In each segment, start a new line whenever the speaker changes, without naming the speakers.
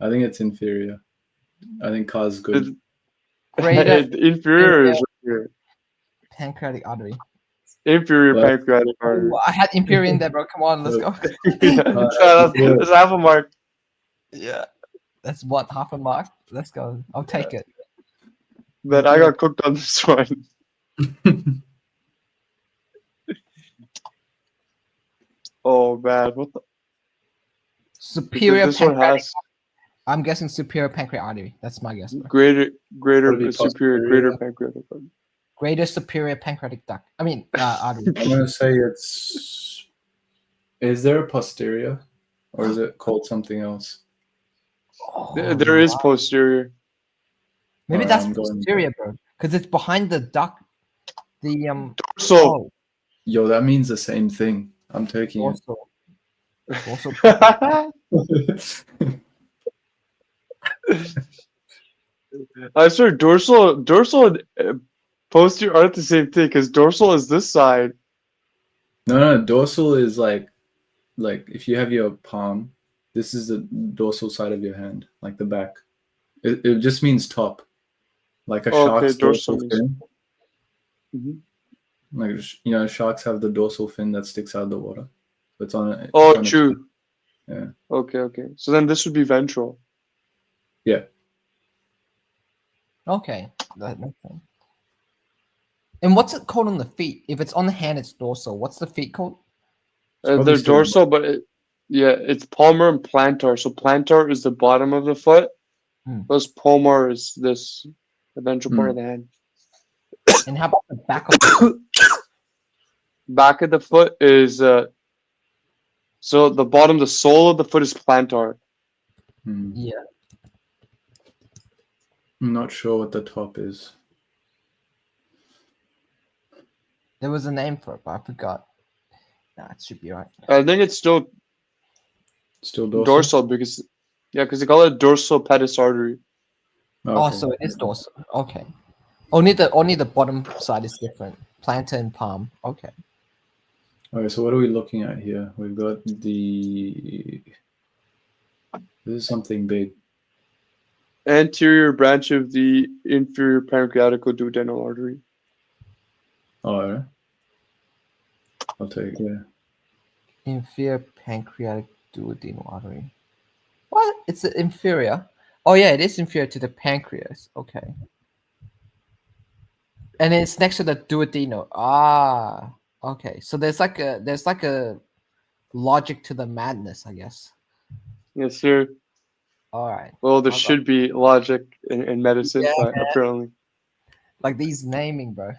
I think it's inferior. I think cause good.
It's-
Greater
inferior is right
pancreatic artery.
here. Inferior
Well-
pancreatic artery.
Ooh, I had imperial in there, bro. Come on, let's go.
yeah, that's, that's half a mark.
Yeah. That's what half a mark. Let's go. I'll take it.
But I got cooked on this one. oh man, what the?
Superior
this one
pancreatic.
has
I'm guessing superior pancreatic artery. That's my guess. Bro.
greater, greater,
Would it be
superior,
posterior?
greater pancreatic. artery.
Greater superior pancreatic duct. I mean, uh, artery.
I'm gonna say it's. Is there a posterior, or is it called something else?
Oh,
There- there is posterior.
Maybe
Alright,
that's
I'm going-
posterior, bro. Because it's behind the duct. The um.
So
oh,
Yo, that means the same thing. I'm taking it.
also. Also.
I swear, dorsal, dorsal, and uh, posterior aren't the same thing because dorsal is this side.
No, no, dorsal is like, like if you have your palm, this is the dorsal side of your hand, like the back. It, it just means top, like a
Okay,
shark's dorsal,
dorsal means-
fin.
Mhm.
Like sh- you know, sharks have the dorsal fin that sticks out of the water. It's on. a- it's
Oh,
on a-
true.
Yeah.
Okay, okay. So then this would be ventral.
Okay. That makes sense. And what's it called on the feet? If it's on the hand, it's dorsal. What's the feet called?
Uh,
probably
they're
still-
dorsal, but it, yeah, it's palmar and plantar. So plantar is the bottom of the foot.
Hmm.
Plus palmar is this the ventral
Hmm.
part of the hand.
And how about the back of the foot?
Back of the foot is uh, so the bottom, the sole of the foot is plantar.
Hmm.
Yeah.
I'm not sure what the top is.
There was a name for it, but I forgot. Nah, it should be right.
I think it's still
Still dorsal.
dorsal, because yeah, because they call it dorsal pedis artery.
Oh,
Okay.
so it is dorsal. Okay. Only the only the bottom side is different. Plantar and palm. Okay.
Okay, so what are we looking at here? We've got the. This is something big.
Anterior branch of the inferior pancreatical duodenal artery.
Oh, all right. I'll take yeah.
Inferior pancreatic duodenal artery. What? It's a- inferior. Oh yeah, it is inferior to the pancreas. Okay. And it's next to the duodenal. Ah. Okay. So there's like a there's like a logic to the madness, I guess.
Yes, sir.
All right.
Well, there
Hold on.
should be logic in, in medicine,
Yeah,
but apparently.
Like these naming, bro.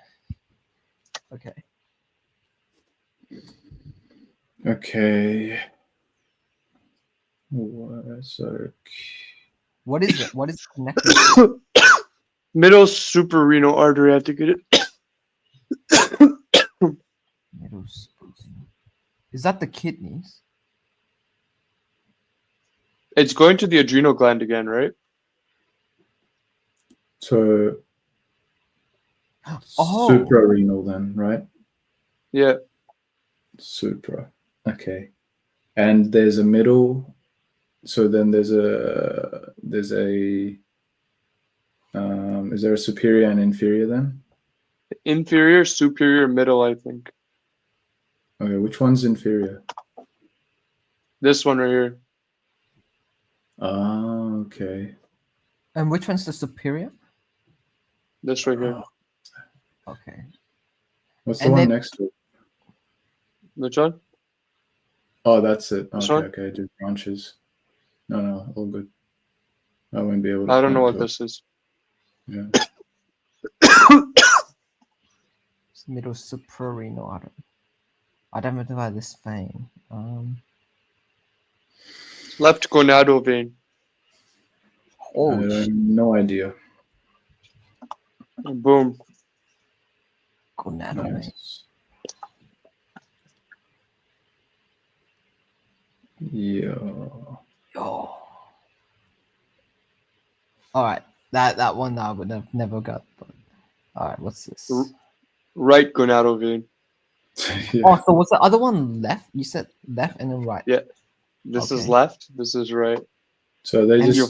Okay.
Okay. What- So
What is it? What is connected?
Middle suprarenal artery, I think it is.
Middle spleen. Is that the kidneys?
It's going to the adrenal gland again, right?
so
Oh.
suprarenal then, right?
Yeah.
Supra. Okay. And there's a middle. So then there's a there's a. Um, is there a superior and inferior then?
Inferior, superior, middle, I think.
Okay, which one's inferior?
This one right here.
Ah, okay.
And which one's the superior?
This right here.
Okay.
What's the
And
one
then-
next to it?
Which one?
Oh, that's it.
This
Okay,
one?
okay, just branches. No, no, all good. I won't be able to.
I don't know
point
what
to
this is.
it.
It's middle suprarenal artery. Identify this vein. Um,
Left gonadal vein.
Yeah.
oh,
I
sh-
have no idea.
Boom.
gonadal vein.
Nice. Yeah.
Yo. All right. That that one I would have never got. But... All right. What's this?
R- Right gonadal vein.
yeah.
Oh, so was the other one left? You said left and then right.
This is
Okay.
left. This is right.
So they
And
just
your